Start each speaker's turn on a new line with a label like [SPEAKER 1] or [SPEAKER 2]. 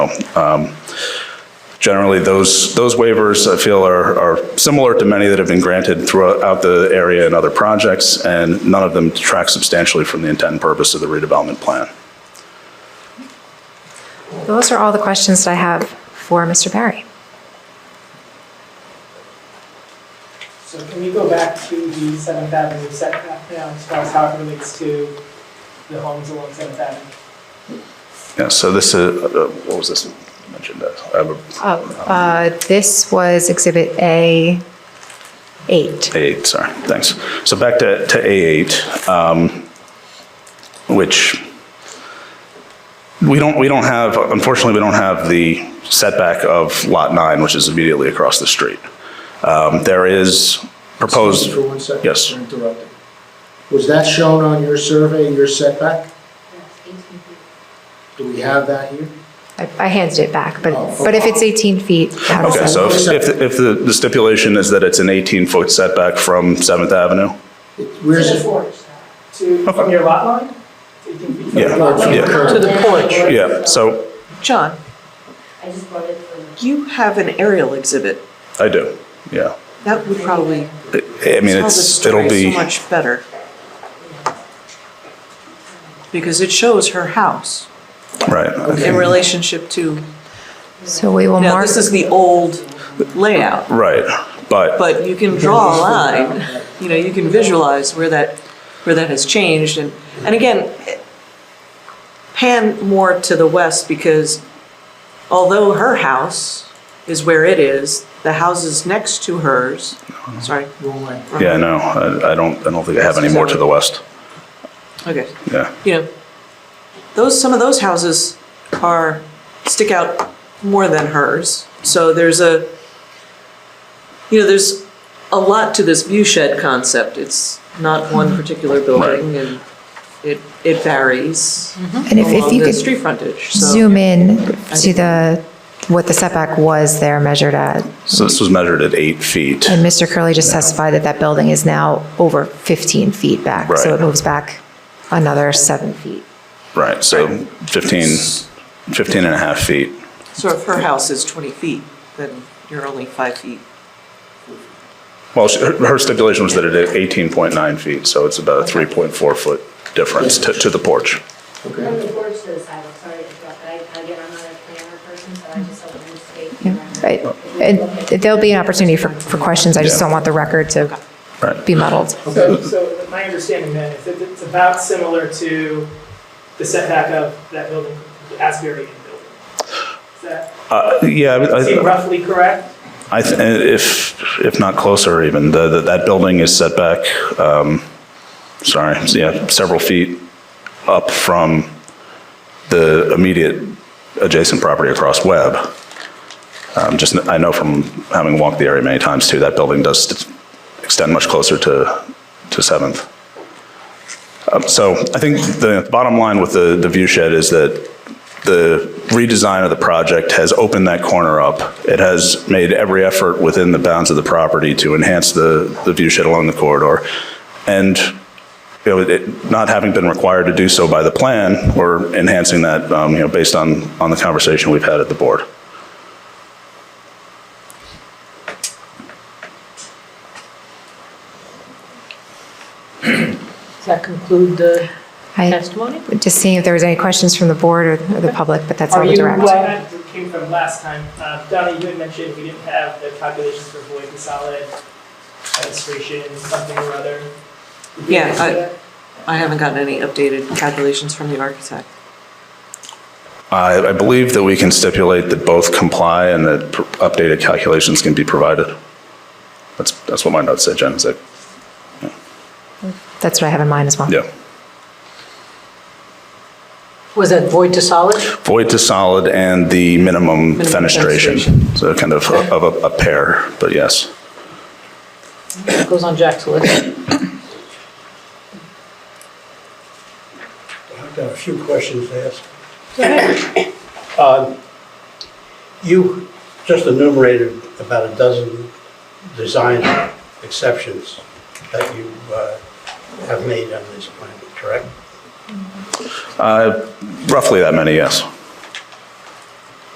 [SPEAKER 1] Um, Generally, those, those waivers, I feel, are, are similar to many that have been granted throughout the area and other projects, and none of them detract substantially from the intent and purpose of the redevelopment plan.
[SPEAKER 2] Those are all the questions that I have for Mr. Barry.
[SPEAKER 3] So can we go back to the Seventh Avenue setback now, as far as how it relates to the homes along Seventh Avenue?
[SPEAKER 1] Yeah, so this is, uh, what was this mentioned? I have a-
[SPEAKER 2] Oh, uh, This was Exhibit A8.
[SPEAKER 1] A8, sorry, thanks. So back to, to A8, um, which we don't, we don't have, unfortunately, we don't have the setback of Lot 9, which is immediately across the street. Um, There is proposed.
[SPEAKER 4] Excuse me For one second.
[SPEAKER 1] Yes.
[SPEAKER 4] You're interrupted. Was that shown on your survey, your setback? Do we have that here?
[SPEAKER 2] I I handed it back, but,
[SPEAKER 4] Oh,
[SPEAKER 2] but if it's 18 feet, how does
[SPEAKER 1] Okay,
[SPEAKER 2] that?
[SPEAKER 1] so if, if- if the the stipulation is that it's an 18-foot setback from 7th Avenue?
[SPEAKER 4] It- Where's it?
[SPEAKER 3] To, from your lot line? Taking feet from your
[SPEAKER 1] Yeah,
[SPEAKER 3] lot line?
[SPEAKER 1] yeah.
[SPEAKER 5] To the porch.
[SPEAKER 1] Yeah, so
[SPEAKER 5] John,
[SPEAKER 6] I just brought it from.
[SPEAKER 5] you have an aerial exhibit.
[SPEAKER 1] I do, yeah.
[SPEAKER 5] That would probably
[SPEAKER 1] I I mean,
[SPEAKER 5] tell the
[SPEAKER 1] it's, it'll
[SPEAKER 5] story so
[SPEAKER 1] be,
[SPEAKER 5] much better. Because it shows her house
[SPEAKER 1] right,
[SPEAKER 5] in relationship to,
[SPEAKER 2] So we will
[SPEAKER 5] now,
[SPEAKER 2] mark,
[SPEAKER 5] this is the old layout,
[SPEAKER 1] right, but,
[SPEAKER 5] but you can draw a line. You know, you can visualize where that, where that has changed. And, and again, pan more to the west because although her house is where it is, the houses next to hers, sorry, Uh-huh.
[SPEAKER 4] Wrong way.
[SPEAKER 1] yeah, no, I I don't, I don't think I have any more to the west,
[SPEAKER 5] okay,
[SPEAKER 1] yeah.
[SPEAKER 5] you know, those, some of those houses are, stick out more than hers. So there's a, you know, there's a lot to this view shed concept. It's not one particular building and it, it varies
[SPEAKER 2] and if if
[SPEAKER 5] along
[SPEAKER 2] you
[SPEAKER 5] the
[SPEAKER 2] could
[SPEAKER 5] street frontage, so.
[SPEAKER 2] zoom in to the, what the setback was there measured at.
[SPEAKER 1] So this was measured at eight feet,
[SPEAKER 2] And Mr. Curley just testified that that building is now over 15 feet back. So
[SPEAKER 1] Right.
[SPEAKER 2] it moves back another seven feet.
[SPEAKER 1] right, so 15, 15 and a half feet.
[SPEAKER 5] So if her house is 20 feet, then you're only five feet.
[SPEAKER 1] Well, she- her her stipulation was that it is 18.9 feet, so it's about a 3.4-foot difference to to the porch.
[SPEAKER 6] From
[SPEAKER 4] Okay.
[SPEAKER 6] the porch to the sidewalk, sorry to interrupt, but I, again, I'm not a planner person, so I just don't want to state.
[SPEAKER 2] Yeah. I- And there'll be an opportunity for, for questions. I just
[SPEAKER 1] Yeah.
[SPEAKER 2] don't want the record to
[SPEAKER 1] Right.
[SPEAKER 2] be muddled.
[SPEAKER 3] So, so my understanding then is that it's about similar to the setback of that building, the Asbury Inn building. Is that
[SPEAKER 1] Uh, Yeah, I would- I-
[SPEAKER 3] seem roughly correct?
[SPEAKER 1] I, th- eh, if, if not closer even, the, the- that building is set back, um, sorry, yeah, several feet up from the immediate adjacent property across Webb. Um, Just, I know from having walked the area many times too, that building does st- extend much closer to, to Seventh. Um, So I think the bottom line with the, the view shed is that the redesign of the project has opened that corner up. It has made every effort within the bounds of the property to enhance the, the view shed along the corridor. And, you know, it, not having been required to do so by the plan, we're enhancing that, um, you know, based on, on the conversation we've had at the board.
[SPEAKER 7] Does that conclude the
[SPEAKER 2] I,
[SPEAKER 7] testimony?
[SPEAKER 2] just seeing if there was any questions from the board or or the public, but that's all
[SPEAKER 3] Are
[SPEAKER 2] the
[SPEAKER 3] you, uh,
[SPEAKER 2] direct.
[SPEAKER 3] well, that came from last time, uh, Donna, you had mentioned we didn't have the calculations for void to solid fenestration, something or other. Did we
[SPEAKER 5] Yeah,
[SPEAKER 3] mention
[SPEAKER 5] I-
[SPEAKER 3] that?
[SPEAKER 5] I haven't gotten any updated calculations from the architect.
[SPEAKER 1] I, I believe that we can stipulate that both comply and that pr- updated calculations can be provided. That's, that's what my notes said, Jen, is that,
[SPEAKER 2] That's what I have in mind as well.
[SPEAKER 1] yeah.
[SPEAKER 7] Was that void to solid?
[SPEAKER 1] void to solid and the minimum
[SPEAKER 5] Minimum
[SPEAKER 1] fenestration.
[SPEAKER 5] fenestration.
[SPEAKER 1] So kind of, a- of a- a pair, but yes.
[SPEAKER 7] That Goes on Jack's list.
[SPEAKER 8] I've got a few questions to ask. Um, You just enumerated about a dozen design exceptions that you uh, have made on this plan, correct?
[SPEAKER 1] Uh, Roughly that many, yes.